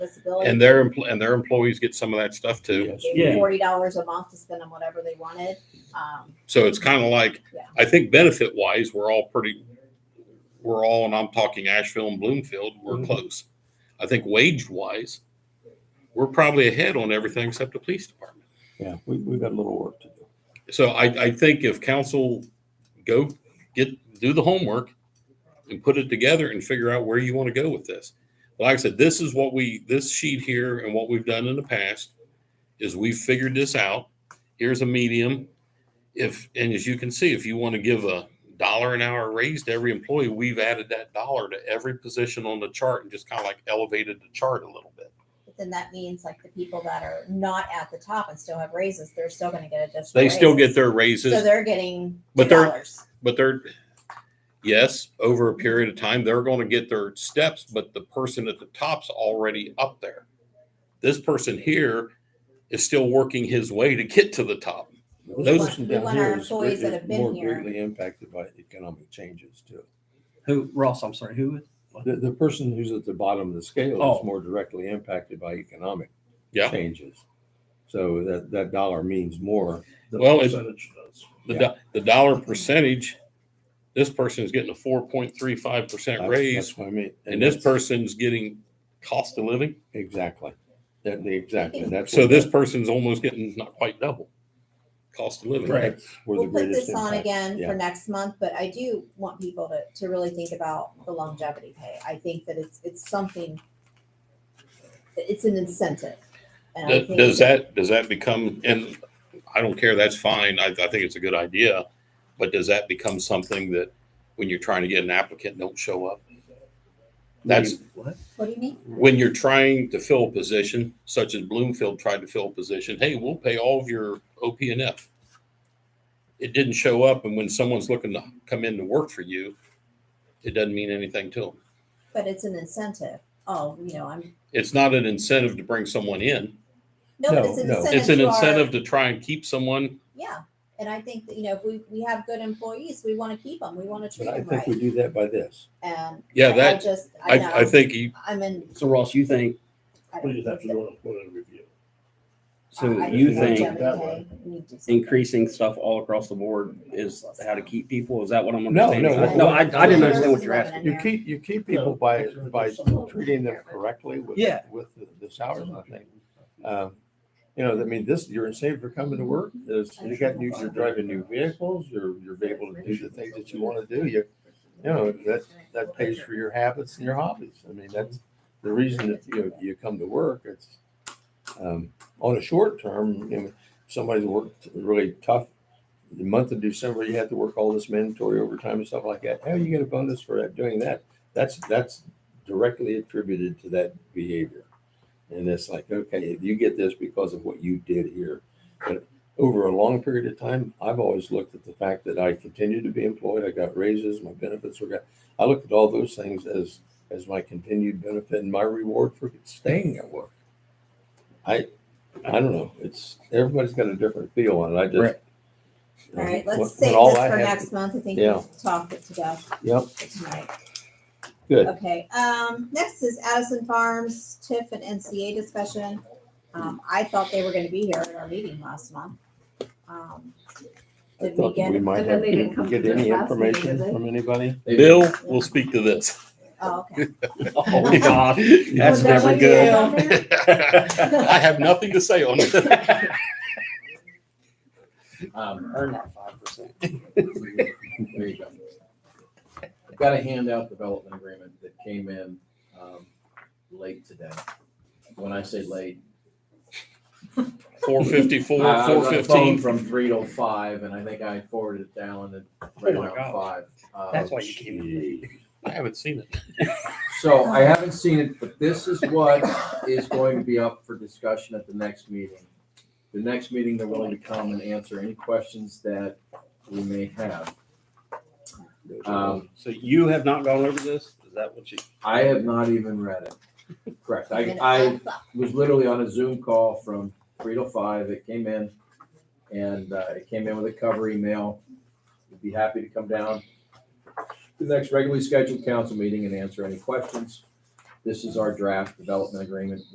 disability. And their, empl- and their employees get some of that stuff too. Yes. Gave them Yeah. Forty dollars a month to spend on whatever they wanted. Um, So it's kind of like, Yeah. I think benefit wise, we're all pretty, we're all, and I'm talking Asheville and Bloomfield, we're Mhm. close. I think wage wise, we're probably ahead on everything except the police department. Yeah, we, we've got a little work to do. So I, I think if council go get, do the homework and put it together and figure out where you want to go with this. Like I said, this is what we, this sheet here and what we've done in the past is we've figured this out. Here's a medium. If, and as you can see, if you want to give a dollar an hour raise to every employee, we've added that dollar to every position on the chart and just kind of like elevated the chart a little bit. but then that means like the people that are not at the top and still have raises, they're still gonna get additional. They still get raises. their So raises, they're getting two But they're- dollars. but they're yes over a period of time they're going to get their steps but the person at the top's already up there this person here is still working his way to get to the top Those- person We down want here our is gre- employees that is have been more here. Greatly impacted by economic changes too. Who, Ross, I'm sorry, who? The, the person who's at the bottom of the scale Oh. is more directly impacted by economic Yeah. changes. So that, that dollar means more. The Well, it- percentage does. the, do- the dollar percentage this person is getting a 4.35% That's- raise That's what I mean. and this that's- person's getting cost of living Exactly. That, exactly. That's. so what this that- person's almost getting not quite double cost of living Right. that's Where the We'll put greatest this on impact. again yeah. for next month, but I do want people to, to really think about the longevity pay. I think that it's, it's something, it's an incentive. And I Th- think Does that, does that become, and I don't care, that's fine, I, I think it's a good idea, but does that become something that when you're trying to get an applicant, don't show up? That's, What? What do you mean? when you're trying to fill a position, such as Bloomfield tried to fill a position, hey, we'll pay all of your OP and F. It didn't show up, and when someone's looking to come in to work for you, it doesn't mean anything to them. But it's an incentive. Oh, you know, I'm, It's not an incentive to bring someone in, no, but No, it's an no. incentive. it's an to our- incentive to try and keep someone Yeah. And I think that, you know, if we, we have good employees, we want to keep them. We want to treat But I them think we right. do that by this. And Yeah, I that- just, I know, I, I think you, I'm in. So Ross, you think, I We don't just have to think do an employee review. that- so I- I you think think that longevity pay, we need to do something. increasing stuff all across the board is how to keep people? Is that what I'm No, understanding? no, No, I, I didn't understand what you're Versus asking. You keep, you keep people by, by treating them correctly with, Yeah. with the- the salaries, I think. Um, You know, I mean, this, you're incentive for coming to work, is you got new, you're driving new vehicles, you're, you're able to do the things that you want to do. You, you know, that, that pays for your habits and your hobbies. I mean, that's the reason that, you know, you come to work. It's, um, on a short term, you know, somebody's worked really tough. The month of December, you have to work all this mandatory overtime and stuff like that. How you get a bonus for that, doing that? That's, that's directly attributed to that behavior. And it's like, okay, you get this because of what you did here. But over a long period of time, I've always looked at the fact that I continued to be employed, I got raises, my benefits were got. I looked at all those things as as my continued benefit and my reward for staying at work. I I don't know. It's everybody's got a different feel on it. I just Right. All right, When- let's when save all this I for had- next month. I think Yeah. we've talked it to death. Yep. tonight. Good. Okay, um, next is Addison Farms, TIF and NCA discussion. Um, I thought they were gonna be here at our meeting last month. Um, I Did we thought get, we might But have then they didn't come get to the any class meeting, information did they? from anybody. Bill will speak to this. oh, okay. Oh, God. That's Was that never what you did good. on there? I have nothing to say on it. Um, earn that five percent. There you go. I've got a handout development agreement that came in, um, late today. When I say late. Four I- Uh, fifty-four, I was four on the phone fifteen. From three to five, and I think I forwarded it down at right Oh my around five. Uh, That's why you came in late. I haven't seen it. So I haven't seen it, but this is what is going to be up for discussion at the next meeting. The next meeting, they're willing to come and answer any questions that we may have. Um, So you have not gone over this? Is that what you? I have not even read it. Correct. I, And I was literally on a Zoom call from three to five. It came in and uh, it came in with a cover email. We'd be happy to come down to the next regularly scheduled council meeting and answer any questions. This is our draft development agreement